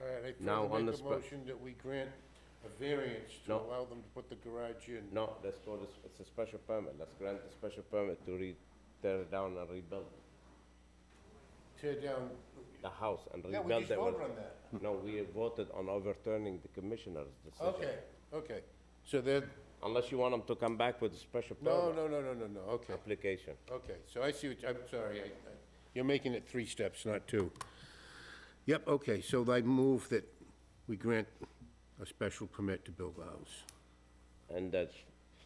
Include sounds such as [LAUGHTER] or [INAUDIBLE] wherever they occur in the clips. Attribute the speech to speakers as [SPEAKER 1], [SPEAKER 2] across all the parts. [SPEAKER 1] I
[SPEAKER 2] Now,
[SPEAKER 1] further
[SPEAKER 2] on
[SPEAKER 1] make
[SPEAKER 2] the
[SPEAKER 1] a
[SPEAKER 2] spot-
[SPEAKER 1] motion that we grant a variance to
[SPEAKER 2] No.
[SPEAKER 1] allow them to put the garage in.
[SPEAKER 2] No, let's go, this- it's a special permit, let's grant a special permit to re, tear it down and rebuild
[SPEAKER 1] Tear down,
[SPEAKER 2] the house and
[SPEAKER 1] yeah,
[SPEAKER 2] rebuild it.
[SPEAKER 1] we just
[SPEAKER 2] with-
[SPEAKER 1] voted on that.
[SPEAKER 2] No, we voted on overturning the commissioner's decision.
[SPEAKER 1] Okay, okay. So then,
[SPEAKER 2] Unless you want them to come back with a special
[SPEAKER 1] no,
[SPEAKER 2] permit
[SPEAKER 1] no, no, no, no, no, okay,
[SPEAKER 2] application.
[SPEAKER 1] okay. So I see what, I'm sorry, I, I- you're making it three steps, not two. Yep, okay, so I move that we grant a special permit to build the house.
[SPEAKER 2] And that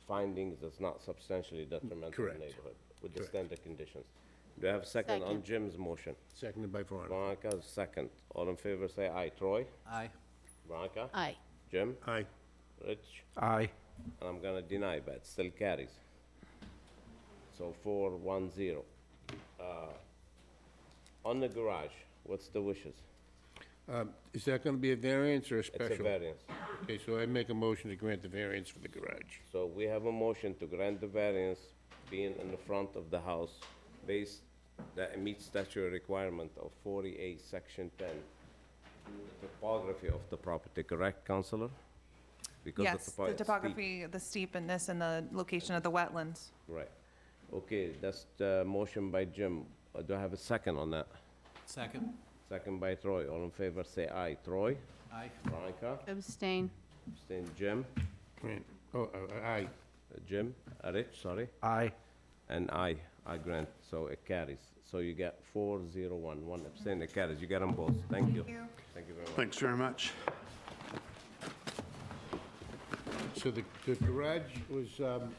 [SPEAKER 2] findings is not substantially detrimental to the
[SPEAKER 1] Correct.
[SPEAKER 2] neighborhood with the
[SPEAKER 1] Correct.
[SPEAKER 2] standard conditions. Do I have a second on
[SPEAKER 3] Second.
[SPEAKER 2] Jim's motion?
[SPEAKER 1] Seconded by Veronica.
[SPEAKER 2] Veronica, second. All in favor, say aye. Troy?
[SPEAKER 4] Aye.
[SPEAKER 2] Veronica?
[SPEAKER 3] Aye.
[SPEAKER 2] Jim?
[SPEAKER 1] Aye.
[SPEAKER 2] Rich?
[SPEAKER 4] Aye.
[SPEAKER 2] And I'm gonna deny, but it still carries. So four, one, zero. Uh, On the garage, what's the wishes?
[SPEAKER 1] Um, Is that gonna be a variance or a special?
[SPEAKER 2] It's a variance.
[SPEAKER 1] Okay, so I make a motion to grant the variance for the garage.
[SPEAKER 2] So we have a motion to grant the variance being in the front of the house based, that it meets statutory requirement of 48, section 10. The Topography of the property, correct, Counselor? Because
[SPEAKER 5] Yes,
[SPEAKER 2] topo-
[SPEAKER 5] the
[SPEAKER 2] it's steep.
[SPEAKER 5] topography, the steepness, and the location of the wetlands.
[SPEAKER 2] Right. Okay, that's the motion by Jim. Uh, Do I have a second on that?
[SPEAKER 4] Second.
[SPEAKER 2] Second by Troy. All in favor, say aye. Troy?
[SPEAKER 4] Aye.
[SPEAKER 2] Veronica?
[SPEAKER 3] Abstain.
[SPEAKER 2] Abstain. Jim?
[SPEAKER 1] Grant, oh, uh, aye,
[SPEAKER 2] Uh, Jim? Uh, Rich, sorry?
[SPEAKER 4] Aye.
[SPEAKER 2] And I, I grant, so it carries. So you get four, zero, one, one abstain, it carries. You get them both. Thank you. Thank you very much.
[SPEAKER 6] Thanks very much.
[SPEAKER 1] so the, the garage was, um,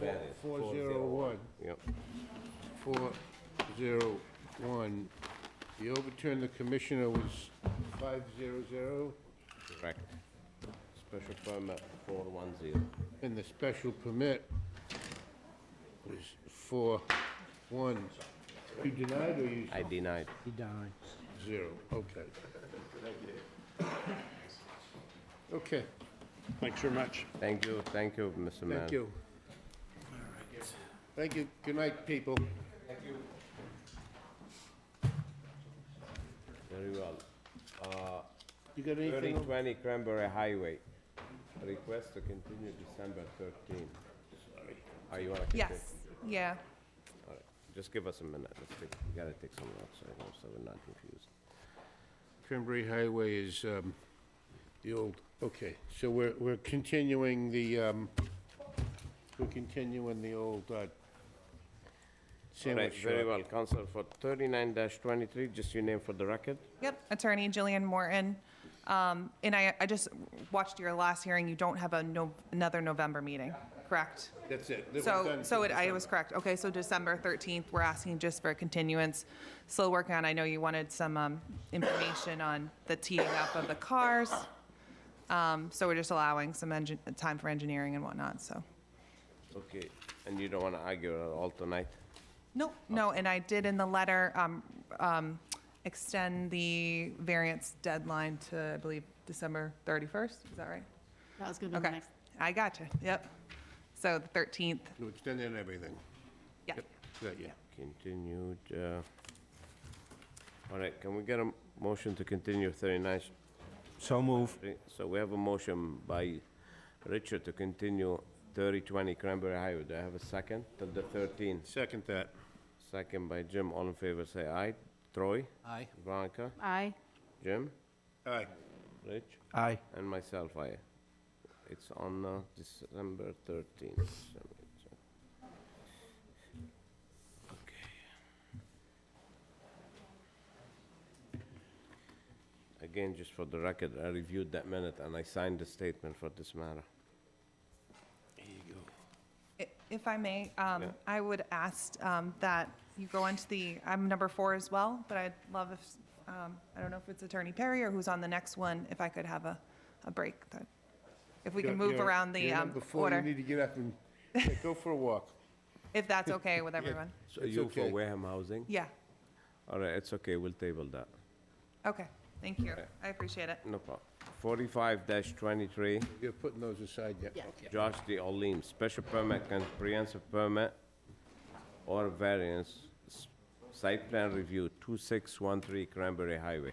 [SPEAKER 2] variance,
[SPEAKER 1] four
[SPEAKER 2] four
[SPEAKER 1] zero
[SPEAKER 2] zero
[SPEAKER 1] one,
[SPEAKER 2] Yep.
[SPEAKER 1] four zero one. The overturn, the commissioner was five zero zero,
[SPEAKER 2] correct. Special permit, four, one, zero.
[SPEAKER 1] and the special permit was four one. You denied or you
[SPEAKER 2] I denied.
[SPEAKER 1] zero, okay. Okay,
[SPEAKER 6] Thanks very much.
[SPEAKER 2] Thank you, thank you, Mr. Mayor.
[SPEAKER 1] thank you. Thank you, good night, people.
[SPEAKER 2] Very well.
[SPEAKER 1] You got anything?
[SPEAKER 2] Thirty
[SPEAKER 1] else?
[SPEAKER 2] twenty Cranberry Highway, request to continue December thirteen. Oh, you wanna continue?
[SPEAKER 5] Yes, yeah.
[SPEAKER 2] All right, just give us a minute, let's take, we gotta take some notes, I know, so we're not confused.
[SPEAKER 1] Cranberry Highway is um, the old, okay, so we're, we're continuing the, um, we're continuing the old uh,
[SPEAKER 2] All right,
[SPEAKER 1] sandwich
[SPEAKER 2] very
[SPEAKER 1] shop.
[SPEAKER 2] well, Council for thirty-nine twenty-three, just your name for the record.
[SPEAKER 5] Yep, attorney Jillian Morton. Um, And I, I just watched your last hearing, you don't have a, no another November meeting, correct?
[SPEAKER 1] That's it. That we're
[SPEAKER 5] So,
[SPEAKER 1] done
[SPEAKER 5] so
[SPEAKER 1] for
[SPEAKER 5] it, I
[SPEAKER 1] December.
[SPEAKER 5] was correct. Okay, so December 13th, we're asking just for a continuance. Still working on, I know you wanted some um, information on the teeing up of the cars. Um, So we're just allowing some engine, time for engineering and whatnot, so.
[SPEAKER 2] Okay, and you don't wanna argue at all tonight?
[SPEAKER 1] Oh.
[SPEAKER 5] No, no, and I did in the letter um, um, extend the variance deadline to, I believe, December 31st, is that right?
[SPEAKER 3] That was gonna be the
[SPEAKER 5] Okay,
[SPEAKER 3] next.
[SPEAKER 5] I gotcha, yep. So the 13th,
[SPEAKER 1] To extend in everything.
[SPEAKER 5] yeah.
[SPEAKER 1] Yep, Yeah, yeah.
[SPEAKER 2] Continued, uh, all right, can we get a m- motion to continue thirty-nine?
[SPEAKER 4] So move.
[SPEAKER 2] So we have a motion by Richard to continue thirty twenty Cranberry Highway, do I have a second? Till the thirteenth,
[SPEAKER 1] Second that.
[SPEAKER 2] second by Jim, all in favor, say aye. Troy,
[SPEAKER 4] Aye.
[SPEAKER 2] Veronica,
[SPEAKER 3] Aye.
[SPEAKER 2] Jim,
[SPEAKER 1] Aye.
[SPEAKER 2] Rich?
[SPEAKER 4] Aye.
[SPEAKER 2] And myself, I, it's on uh, December 13th. uh, Okay. Again, just for the record, I reviewed that minute and I signed the statement for this matter.
[SPEAKER 5] I- If I may, um,
[SPEAKER 2] Yeah.
[SPEAKER 5] I would ask um, that you go into the, I'm number four as well, but I'd love if, um, I don't know if it's Attorney Perry or who's on the next one, if I could have a, a break. that- If we can move around the um,
[SPEAKER 1] Before, you
[SPEAKER 5] order,
[SPEAKER 1] need to get up and, [LAUGHS] yeah, go for a walk.
[SPEAKER 5] if
[SPEAKER 1] [LAUGHS]
[SPEAKER 5] that's okay with everyone.
[SPEAKER 2] So
[SPEAKER 1] It's
[SPEAKER 2] you for
[SPEAKER 1] okay.
[SPEAKER 2] Wareham Housing?
[SPEAKER 5] Yeah,
[SPEAKER 2] All right, it's okay, we'll table that.
[SPEAKER 5] okay, thank you.
[SPEAKER 2] Okay.
[SPEAKER 5] I appreciate it.
[SPEAKER 2] No problem. 45-23,
[SPEAKER 1] You're putting those aside yet?
[SPEAKER 3] Yeah.
[SPEAKER 2] Josh D. Olim, special permit, comprehensive permit, or variance, s- site plan review, 2613 Cranberry Highway.